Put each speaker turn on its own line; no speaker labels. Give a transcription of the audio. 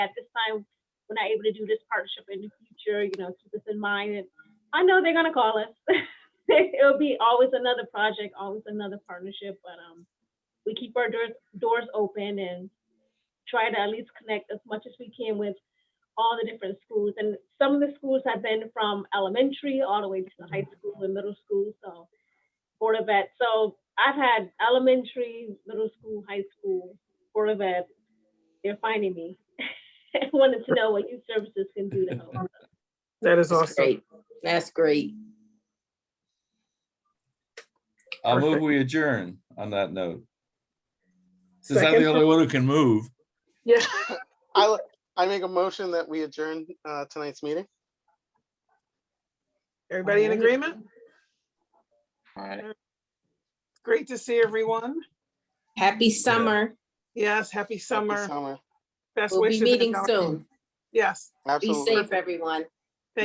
at this time, we're not able to do this partnership in the future, you know, keep this in mind. And I know they're gonna call us. It'll be always another project, always another partnership, but, um, we keep our doors, doors open and try to at least connect as much as we can with all the different schools. And some of the schools have been from elementary all the way to the high school and middle school, so Board of Ed. So I've had elementary, middle school, high school, Board of Ed. They're finding me. I Wanted to know what youth services can do to help.
That is
That's
awesome.
great. That's great.
I'll move
Perfect.
we adjourn on that note. Since I'm the
Second,
only one who can move,
yeah,
I, would- I make a motion that we adjourn uh, tonight's meeting.
everybody in
Alright.
agreement?
All right.
Great to see everyone.
Happy summer.
Yes, happy
Happy
summer.
Summer,
Best
We'll be
wishes. and
meeting
all-
soon.
Yes,
Be
absolutely.
safe, everyone.